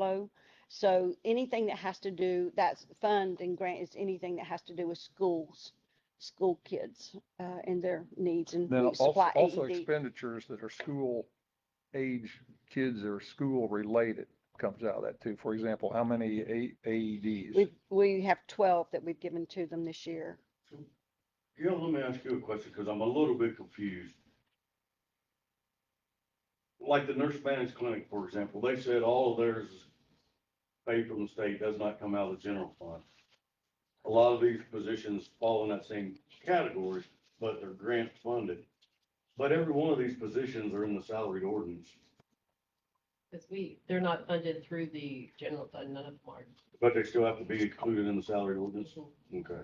flow. So anything that has to do, that's fund and grant is anything that has to do with schools, school kids, uh, and their needs and Then we also, supply E also AED. expenditures that are school age, kids that are school related comes out of that too. For example, how many A- E AEDs? We, we have twelve that we've given to them this year. Gil, let me ask you a question, because I'm a little bit confused. Like the nurse managed clinic, for example, they said all of theirs is paid from the state, does not come out of the general fund. A lot of these positions fall in that same category, but they're grant funded. But every one of these positions are in the salaried ordinance, Because we, they're not funded through the general fund, none of them are. but they still have to be included in the salaried ordinance? Okay.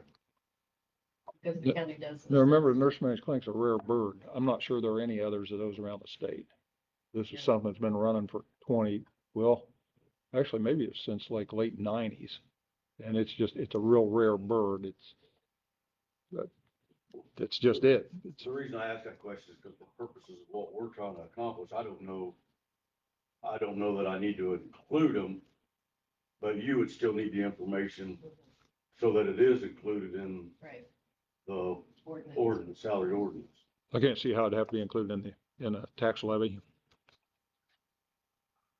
Because Yeah. the county does. Now, remember, the nurse managed clinic's a rare bird. I'm not sure there are any others of those around the state. This Yeah. is something that's been running for twenty, well, actually, maybe it's since like late nineties. And it's just, it's a real rare bird. It's, that- that's just it. It's- The reason I ask that question is because for purposes of what we're trying to accomplish, I don't know, I don't know that I need to include them, but you would still need the information so that it is included in Right, the ordinance. ordinance, salary ordinance. I can't see how it'd have to be included in the, in a tax levy.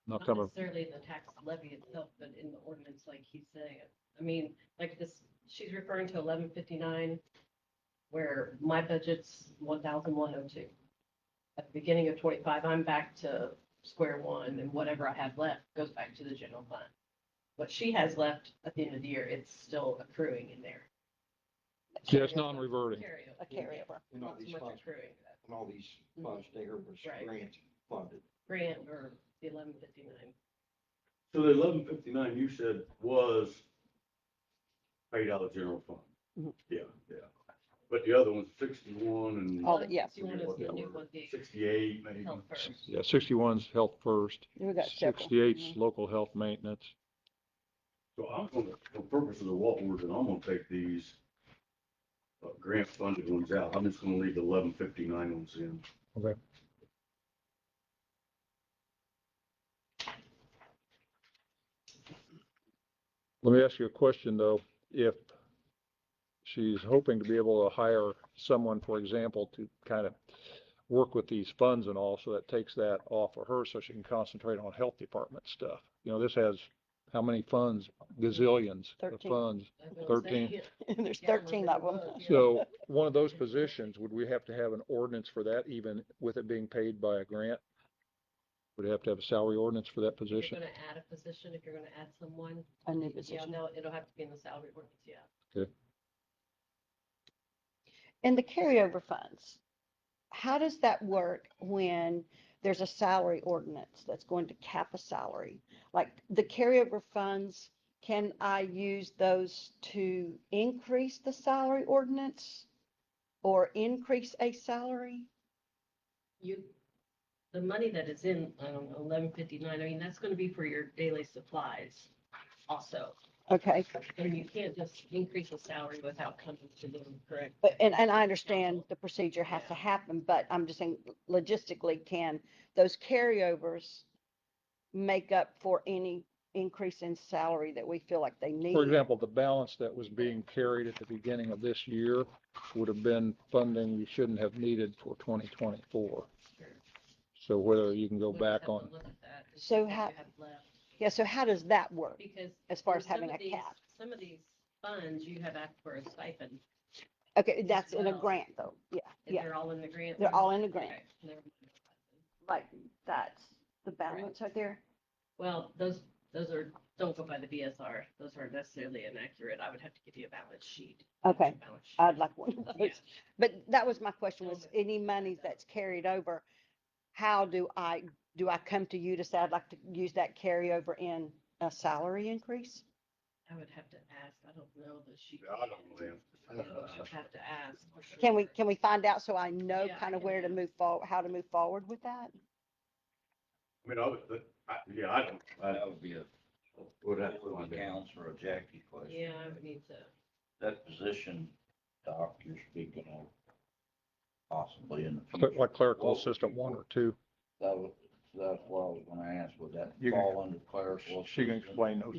Not Not coming, necessarily in the tax levy itself, but in the ordinance, like he's saying. I mean, like this, she's referring to eleven fifty-nine, where my budget's one thousand one oh two. At the beginning of twenty-five, I'm back to square one, and whatever I had left goes back to the general fund. What she has left at the end of the year, it's still accruing in there. yeah, it's non-reverting. Carryover. A carryover. And all Not these so much funds, accruing, and all these funds there was Right. grant funded. grant or the eleven fifty-nine. So the eleven fifty-nine you said was paid out of general fund? Mhm. Yeah, yeah. But the other one's sixty-one and All the- yes. You want to new one, Oh, the sixty-eight maybe. health first. Yeah, sixty-one's health first, We got several. sixty-eight's Mhm. local health maintenance. So I'm gonna, for purposes of what we're doing, I'm gonna take these uh, grant funded ones out. I'm just gonna leave the eleven fifty-nine ones in. Okay. Let me ask you a question, though. If she's hoping to be able to hire someone, for example, to kind of work with these funds and all, so that takes that off of her, so she can concentrate on health department stuff. You know, this has how many funds? Gazillions of Thirteen. funds. That's what I'm saying. There's Yeah, I thirteen of remember them. the book, yeah. So one of those positions, would we have to have an ordinance for that even with it being paid by a grant? Would it have to have a salary ordinance for that If you're position? going to add a position, if you're going to add someone, A new yeah, position. no, it'll have to be in the salary ordinance, yeah. And the carryover funds, how does that work when there's a salary ordinance that's going to cap a salary? Like the carryover funds, can I use those to increase the salary ordinance? Or increase a salary? You, the money that is in, I don't know, eleven fifty-nine, I mean, that's going to be for your daily supplies also. Okay, And you can't just increase the salary without coming to them, correct? but, and, and I understand the procedure has to happen, but I'm just saying logistically, can those carryovers make up for any increase in salary that we feel like they need? For example, the balance that was being carried at the beginning of this year would have been funding you shouldn't have needed for twenty twenty-four. So whether you can go We'll just have back to on, look at that and see So what you how- have left, Yeah, so how does that work? Because. as far in as having some a of these- cap. Some of these funds, you have asked for a stipend, Okay, that's in a well. grant though. Yeah, and yeah, they're all in the grant. they're all one? in a grant. Okay, never mind. Like, that's the balance right there. Well, those, those are, don't go by the BSR. Those aren't necessarily inaccurate. I would have to give you a balance sheet. Okay, Balance sheet. I'd like one of Yeah. those. But that was my question was Okay. any money that's carried over, how do I, do I come to you to say I'd like to use that carryover in a salary increase? I would have to ask. I don't know the sheet. Yeah, I don't know. Yeah, Uh, I'll have to ask. for sure. Can we, can we find out so I know Yeah, I kind of can where to ask. move forward, how to move forward with that? I mean, I would, but I, yeah, I don't, I That would be a, would have that to would find be out. Counselor Jackie question. Yeah, I would need to. That position, Doc, you're speaking of possibly in the but future. like clerical What would assistant you one want? or two, That would, that's what I was gonna ask, would that You can- fall under clerical? She can assistance? explain those